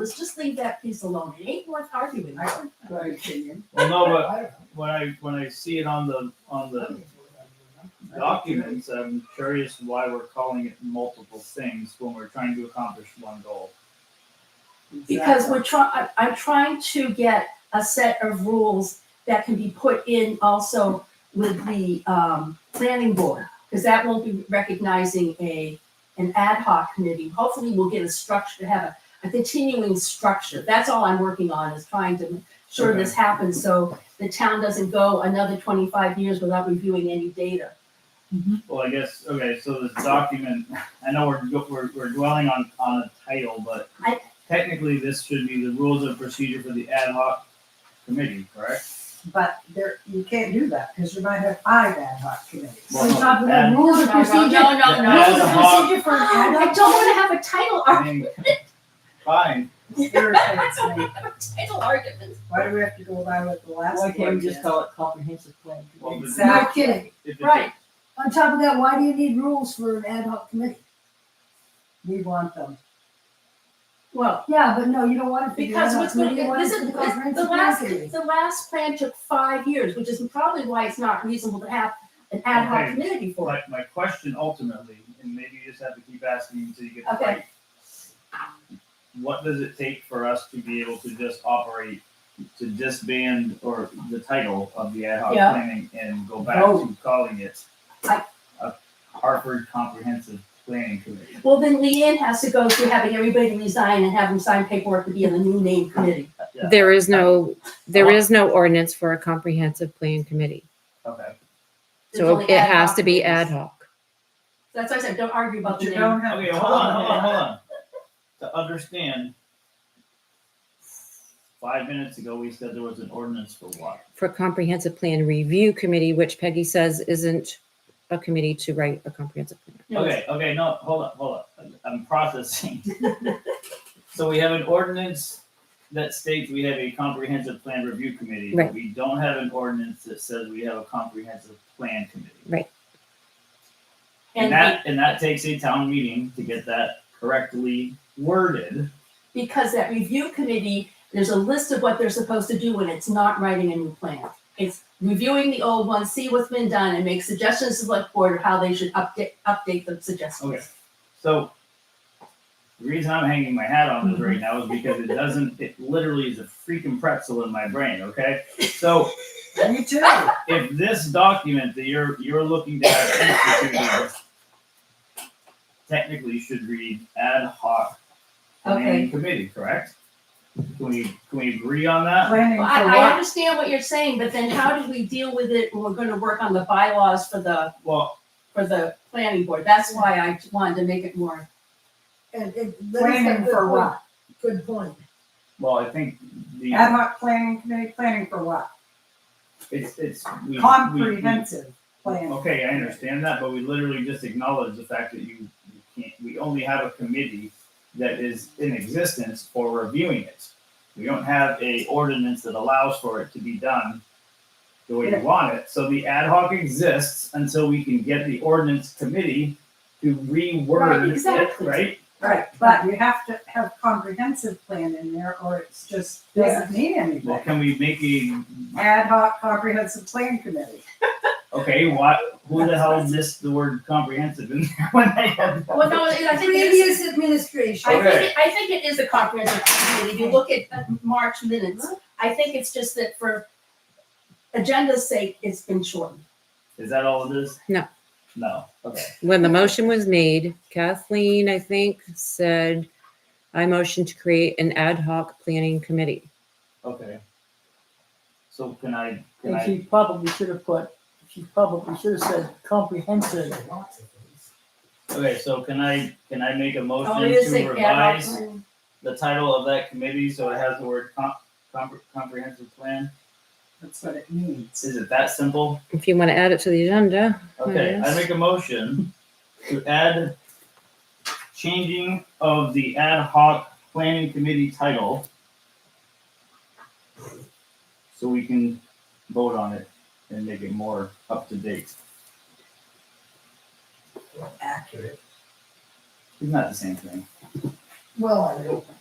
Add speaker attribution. Speaker 1: Let's just leave that piece alone. It ain't worth arguing. over.
Speaker 2: my opinion.
Speaker 3: Well, no, but
Speaker 2: I
Speaker 3: when I, when I see it on the,
Speaker 2: don't
Speaker 3: on the
Speaker 2: know.
Speaker 3: documents, I'm curious why we're calling it multiple things when we're trying to accomplish one goal.
Speaker 1: Because we're trying, I'm trying to get a set of rules that can be put in also with the um, planning board. Because that won't be recognizing a, an ad hoc committee. Hopefully we'll get a structure, have a, a continuing structure. That's all I'm working on is trying to make sure this happens so the town doesn't go another twenty-five years without reviewing any data.
Speaker 3: Well, I guess, okay, so this document, I know we're, go- we're, we're dwelling on, on a title, but
Speaker 1: I-
Speaker 3: technically this should be the rules of procedure for the ad hoc committee, correct?
Speaker 2: But there, you can't do that, because you might have five ad hoc committees.
Speaker 3: Well, no,
Speaker 4: talking
Speaker 3: ad-
Speaker 4: about rules of
Speaker 1: No, no,
Speaker 4: procedure.
Speaker 1: no, no, no.
Speaker 4: Rules of
Speaker 3: Ad hoc.
Speaker 4: procedure for an ad
Speaker 1: I
Speaker 4: hoc.
Speaker 1: don't want to have a title
Speaker 3: I
Speaker 1: argument.
Speaker 3: mean, fine,
Speaker 2: It irritates me.
Speaker 1: Title argument.
Speaker 2: Why do we have to go by what the last
Speaker 5: Why
Speaker 2: one
Speaker 5: can't we just
Speaker 2: is?
Speaker 5: call it comprehensive plan?
Speaker 3: Well, the-
Speaker 4: No
Speaker 2: Exactly.
Speaker 4: kidding.
Speaker 3: if it's a-
Speaker 1: Right.
Speaker 4: On top of that, why do you need rules for an ad hoc committee?
Speaker 2: We want them.
Speaker 1: Well,
Speaker 4: Yeah, but no, you don't want it for the ad
Speaker 1: Because
Speaker 4: hoc
Speaker 1: what's going,
Speaker 4: committee, you want it
Speaker 1: this
Speaker 4: for
Speaker 1: is,
Speaker 4: the
Speaker 1: this- the
Speaker 4: comprehensive
Speaker 1: last,
Speaker 4: plan committee.
Speaker 1: the last plan took five years, which is probably why it's not reasonable to have an ad hoc
Speaker 3: Okay.
Speaker 1: committee for it.
Speaker 3: My, my question ultimately, and maybe you just have to keep asking until you get it
Speaker 1: Okay.
Speaker 3: right. What does it take for us to be able to just operate, to disband or the title of the ad hoc
Speaker 1: Yeah.
Speaker 3: planning and go back to calling it
Speaker 1: I-
Speaker 3: a Hartford Comprehensive Planning Committee?
Speaker 1: Well, then Leanne has to go through having everybody resign and have them sign paperwork to be in the new name committee.
Speaker 3: Yeah.
Speaker 6: There is no, there is no ordinance for a comprehensive plan committee.
Speaker 3: Okay,
Speaker 1: There's
Speaker 6: So
Speaker 1: only
Speaker 6: it
Speaker 1: ad
Speaker 6: has
Speaker 1: hoc
Speaker 6: to be ad
Speaker 1: committees.
Speaker 6: hoc.
Speaker 1: That's why I said, don't argue about
Speaker 2: But
Speaker 1: the
Speaker 2: you
Speaker 1: name.
Speaker 2: don't have.
Speaker 3: okay, hold on, hold on, hold on. To understand, five minutes ago, we said there was an ordinance for what?
Speaker 6: For comprehensive plan review committee, which Peggy says isn't a committee to write a comprehensive plan.
Speaker 1: No, it's-
Speaker 3: Okay, okay, no, hold up, hold up. I'm processing. So we have an ordinance that states we have a comprehensive plan review committee, but
Speaker 6: Right.
Speaker 3: we don't have an ordinance that says we have a comprehensive plan committee. And
Speaker 1: And
Speaker 3: that, and that takes a town meeting to get that correctly worded.
Speaker 1: because that review committee, there's a list of what they're supposed to do when it's not writing a new plan. It's reviewing the old one, see what's been done, and make suggestions to the select board of how they should update, update the suggestions.
Speaker 3: Okay. So the reason I'm hanging my hat on this right now is because it doesn't, it literally is a freaking pretzel in my brain, okay? So
Speaker 2: on. Me too.
Speaker 3: if this document that you're you're looking to have instituted technically should read ad hoc planning committee, correct? Can we can we agree on that?
Speaker 2: Planning
Speaker 1: Well, I,
Speaker 2: for
Speaker 1: I
Speaker 2: what?
Speaker 1: understand what you're saying, but then how do we deal with it when we're gonna work on the bylaws for the,
Speaker 3: Well,
Speaker 1: for the planning board? That's why I wanted to make it more,
Speaker 4: And, and that is a
Speaker 2: Planning
Speaker 4: good
Speaker 2: for
Speaker 4: point,
Speaker 2: what?
Speaker 4: good point.
Speaker 3: well, I think the
Speaker 2: Ad hoc planning committee, planning for what?
Speaker 3: it's it's we, we- Oh.
Speaker 2: Comprehensive plan.
Speaker 3: Okay, I understand that, but we literally just acknowledge the fact that you, you can't. We only have a committee that is in existence for reviewing it. We don't have a ordinance that allows for it to be done the way
Speaker 2: Yeah.
Speaker 3: you want it. So the ad hoc exists until we can get the ordinance committee to reword
Speaker 1: Right,
Speaker 3: it,
Speaker 1: exactly.
Speaker 3: right?
Speaker 2: Right, but you have to have comprehensive plan in there or it's just doesn't mean
Speaker 3: Well,
Speaker 2: anything.
Speaker 3: can we make a
Speaker 2: Ad hoc comprehensive plan committee.
Speaker 3: okay? What? Who the hell missed the word comprehensive in there when I had that?
Speaker 1: well, no, I think it is,
Speaker 4: Previous administration.
Speaker 1: I think, it- I think it is a comprehensive plan. If you look at uh, March minutes, I think it's just that for agenda's sake, it's been shortened.
Speaker 3: Is that all it is?
Speaker 6: No.
Speaker 3: No. Okay.
Speaker 6: When the motion was made, Kathleen, I think, said, I motion to create an ad hoc planning committee.
Speaker 3: Okay. So can I, can
Speaker 5: And
Speaker 3: I,
Speaker 5: she probably should have put, she probably should have said comprehensive.
Speaker 3: okay, so can I, can I make a
Speaker 1: Oh,
Speaker 3: motion
Speaker 1: it is
Speaker 3: to
Speaker 1: a ad hoc
Speaker 3: revise
Speaker 1: plan.
Speaker 3: the title of that committee so it has the word com- compre- comprehensive plan?
Speaker 2: That's what it means.
Speaker 3: Is it that simple?
Speaker 6: If you want to add it to the agenda,
Speaker 3: Okay, I
Speaker 6: Yes.
Speaker 3: make a motion to add changing of the ad hoc planning committee title so we can vote on it and make it more up to date.
Speaker 2: Accurate.
Speaker 3: It's not the same thing.
Speaker 4: Well, I don't.